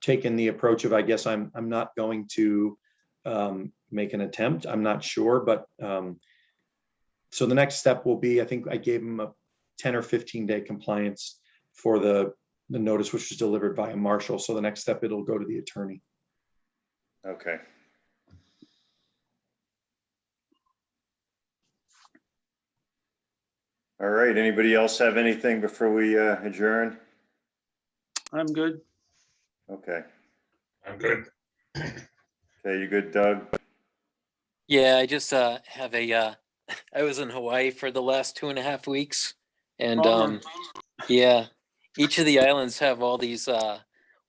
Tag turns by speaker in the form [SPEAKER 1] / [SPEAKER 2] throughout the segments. [SPEAKER 1] taken the approach of, I guess I'm, I'm not going to um, make an attempt. I'm not sure, but um, so the next step will be, I think I gave him a 10 or 15 day compliance for the, the notice which was delivered by a marshal. So the next step, it'll go to the attorney.
[SPEAKER 2] Okay. All right, anybody else have anything before we uh, adjourn?
[SPEAKER 3] I'm good.
[SPEAKER 2] Okay,
[SPEAKER 4] I'm good.
[SPEAKER 2] okay, you good, Doug?
[SPEAKER 5] Yeah, I just uh have a uh I was in Hawaii for the last two and a half weeks and
[SPEAKER 2] Oh,
[SPEAKER 3] Bummer.
[SPEAKER 5] um yeah, each of the islands have all these uh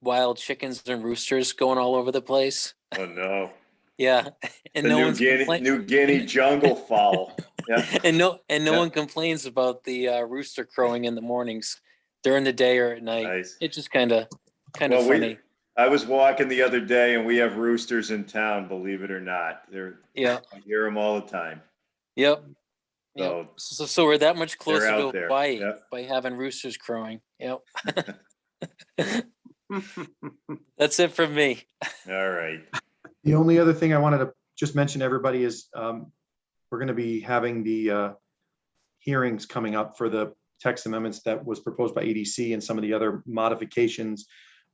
[SPEAKER 5] wild chickens and roosters going all over the place.
[SPEAKER 2] Oh, no.
[SPEAKER 5] Yeah. And
[SPEAKER 2] The
[SPEAKER 5] no
[SPEAKER 2] New
[SPEAKER 5] one's
[SPEAKER 2] Guinea,
[SPEAKER 5] complaining
[SPEAKER 2] New Guinea jungle fowl. Yeah,
[SPEAKER 5] and no and no
[SPEAKER 2] Yeah.
[SPEAKER 5] one complains about the uh rooster crowing in the mornings during the day or at night.
[SPEAKER 2] nice.
[SPEAKER 5] It's just kind of kind of
[SPEAKER 2] Well, we-
[SPEAKER 5] funny.
[SPEAKER 2] I was walking the other day and we have roosters in town, believe it or not. They're,
[SPEAKER 5] Yeah.
[SPEAKER 2] I hear them all the time.
[SPEAKER 5] Yep.
[SPEAKER 2] So,
[SPEAKER 5] Yep. So so we're that much closer
[SPEAKER 2] out
[SPEAKER 5] to
[SPEAKER 2] there,
[SPEAKER 5] Hawaii
[SPEAKER 2] yep.
[SPEAKER 5] by having roosters crowing. Yep. That's it from me.
[SPEAKER 2] all right.
[SPEAKER 1] The only other thing I wanted to just mention to everybody is um, we're going to be having the uh, hearings coming up for the text amendments that was proposed by EDC and some of the other modifications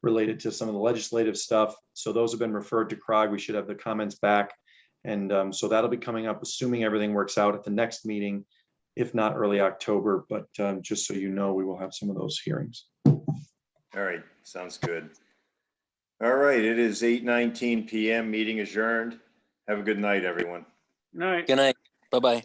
[SPEAKER 1] related to some of the legislative stuff. So those have been referred to CROG. We should have the comments back. And um, so that'll be coming up, assuming everything works out at the next meeting, if not early October. But um, just so you know, we will have some of those hearings.
[SPEAKER 2] All right, sounds good. All right, it is eight nineteen PM, meeting adjourned. Have a good night, everyone.
[SPEAKER 3] All right.
[SPEAKER 5] Good night. Bye bye.